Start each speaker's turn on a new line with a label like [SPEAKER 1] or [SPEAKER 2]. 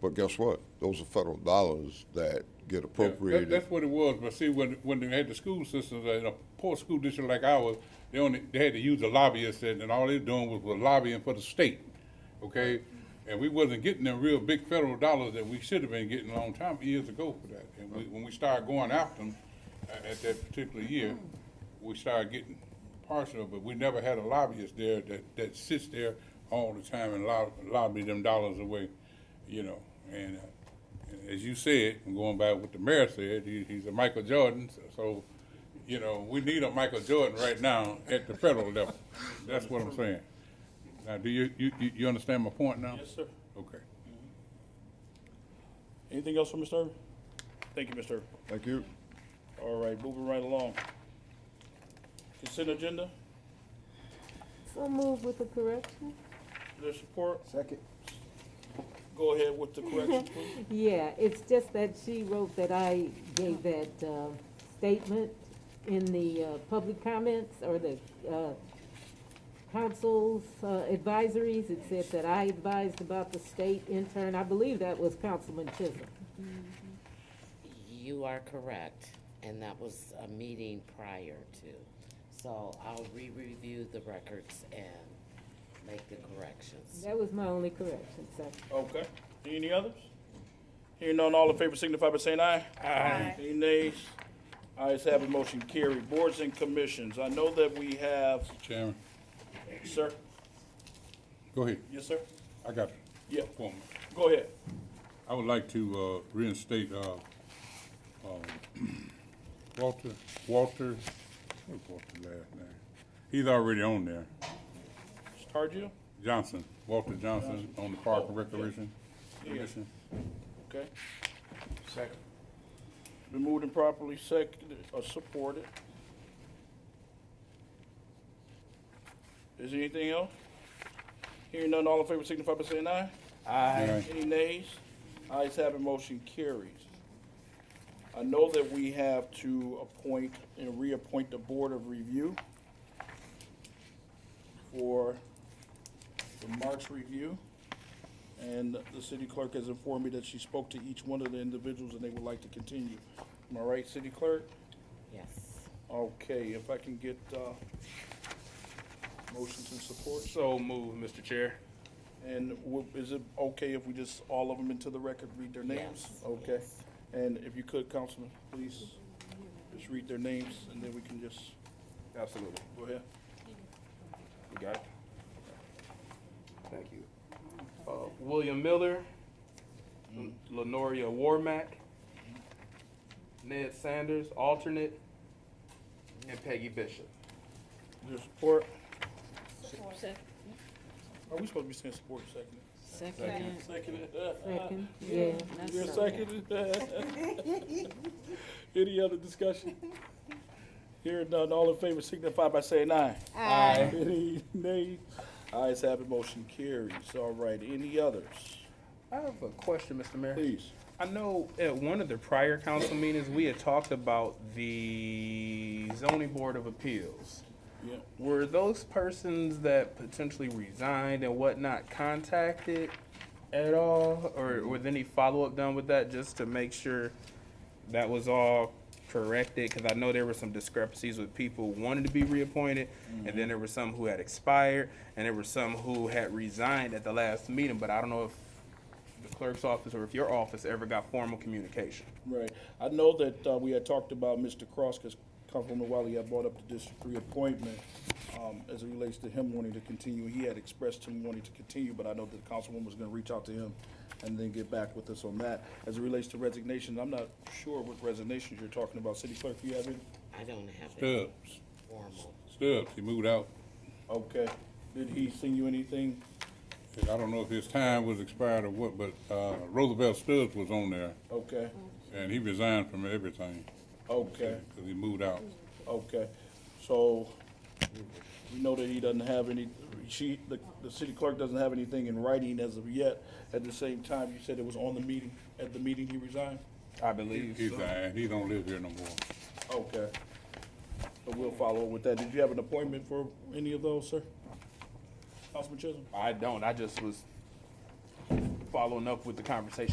[SPEAKER 1] But guess what? Those are federal dollars that get
[SPEAKER 2] Yeah, that-
[SPEAKER 1] appropriated.
[SPEAKER 2] That's what it was, but see, when, when they had the school systems, uh, in a poor school district like ours, they only, they had to use the lobbyists and, and all they doing was, was lobbying for the state, okay? And we wasn't getting them real big federal dollars that we should have been getting a long time, years ago for that. And we, when we started going after them, a- at that particular year, we started getting partial, but we never had a lobbyist there that, that sits there all the time and lob, lobby them dollars away, you know? And, uh, as you said, and going by what the mayor said, he, he's a Michael Jordan, so- so, you know, we need a Michael Jordan right now at the federal level. That's what I'm saying. Now, do you, you, you you understand my point now?
[SPEAKER 3] Yes, sir.
[SPEAKER 2] Okay.
[SPEAKER 3] Anything else from Mr. Irvin? Thank you, Mr. Irvin.
[SPEAKER 1] Thank you.
[SPEAKER 3] All right, moving right along. Consent agenda,
[SPEAKER 4] So move with the correction?
[SPEAKER 3] there's support.
[SPEAKER 5] Second.
[SPEAKER 3] Go ahead with the correction, please.
[SPEAKER 4] Yeah, it's just that she wrote that I gave that uh, statement in the uh, public comments or the uh, council's uh, advisories. It said that I advised about the state intern. I believe that was Councilman Chisholm.
[SPEAKER 6] You are correct, and that was a meeting prior to. So I'll re-review the records and make the corrections.
[SPEAKER 4] That was my only correction, so.
[SPEAKER 3] Okay. Any others? Hearing none, all in favor signify by saying aye. Aye. Any nays? Ayes have it, motion carried. Boards and commissions, I know that we have,
[SPEAKER 2] Chairman,
[SPEAKER 3] sir,
[SPEAKER 2] go ahead.
[SPEAKER 3] yes, sir?
[SPEAKER 2] I got it.
[SPEAKER 3] Yeah,
[SPEAKER 2] One more.
[SPEAKER 3] go ahead.
[SPEAKER 2] I would like to uh, reinstate uh, um, Walter, Walter, what's Walter's last name? He's already on there.
[SPEAKER 3] Targio?
[SPEAKER 2] Johnson, Walter Johnson on the Park and
[SPEAKER 3] Oh, yeah.
[SPEAKER 2] Recreation
[SPEAKER 3] Yeah.
[SPEAKER 2] Commission.
[SPEAKER 3] Okay. Second. Been moved and properly seconded or supported. Is there anything else? Hearing none, all in favor signify by saying aye.
[SPEAKER 2] Aye.
[SPEAKER 3] Any nays? Ayes have it, motion carries. I know that we have to appoint and reappoint the Board of Review for the Marks Review. And the city clerk has informed me that she spoke to each one of the individuals and they would like to continue. Am I right, city clerk?
[SPEAKER 6] Yes.
[SPEAKER 3] Okay, if I can get, uh, motions and support.
[SPEAKER 7] So moved, Mr. Chair.
[SPEAKER 3] And wo- is it okay if we just, all of them into the record, read their names?
[SPEAKER 6] Yes,
[SPEAKER 3] Okay.
[SPEAKER 6] yes.
[SPEAKER 3] And if you could, Councilman, please, just read their names, and then we can just,
[SPEAKER 7] Absolutely.
[SPEAKER 3] go ahead.
[SPEAKER 7] You got it? Thank you. Uh, William Miller, Lenoria Warmack, Ned Sanders, alternate, and Peggy Bishop.
[SPEAKER 3] Your support? Are we supposed to be saying support second?
[SPEAKER 6] Second.
[SPEAKER 4] Second, yeah.
[SPEAKER 3] You're second? Any other discussion? Here none, all in favor signify by saying aye. Aye. Any nay? Ayes have it, motion carries. All right, any others?
[SPEAKER 7] I have a question, Mr. Mayor.
[SPEAKER 3] Please.
[SPEAKER 7] I know at one of the prior council meetings, we had talked about the zoning board of appeals.
[SPEAKER 3] Yeah.
[SPEAKER 7] Were those persons that potentially resigned and whatnot contacted at all? Or was any follow-up done with that just to make sure that was all corrected? Because I know there were some discrepancies with people who wanted to be reappointed, and then there were some who had expired, and there were some who had resigned at the last meeting, but I don't know if the clerk's office or if your office ever got formal communication.
[SPEAKER 3] Right. I know that uh, we had talked about Mr. Cross, because Councilwoman Wiley had brought up the district reappointment um, as it relates to him wanting to continue. He had expressed him wanting to continue, but I know that the Councilwoman was going to reach out to him and then get back with us on that. As it relates to resignations, I'm not sure what resignations you're talking about. City Clerk, you have any?
[SPEAKER 6] I don't have it
[SPEAKER 2] Stubbs,
[SPEAKER 6] formal.
[SPEAKER 2] Stubbs, he moved out.
[SPEAKER 3] Okay. Did he send you anything?
[SPEAKER 2] I don't know if his time was expired or what, but uh, Roosevelt Stubbs was on there,
[SPEAKER 3] Okay.
[SPEAKER 2] and he resigned from everything.
[SPEAKER 3] Okay.
[SPEAKER 2] Because he moved out.
[SPEAKER 3] Okay, so we know that he doesn't have any, she, the, the city clerk doesn't have anything in writing as of yet. At the same time, you said it was on the meeting, at the meeting he resigned?
[SPEAKER 7] I
[SPEAKER 2] He's,
[SPEAKER 7] believe.
[SPEAKER 2] uh, he don't live here no more.
[SPEAKER 3] Okay. So we'll follow up with that. Did you have an appointment for any of those, sir? Councilman Chisholm?
[SPEAKER 7] I don't, I just was following up with the conversation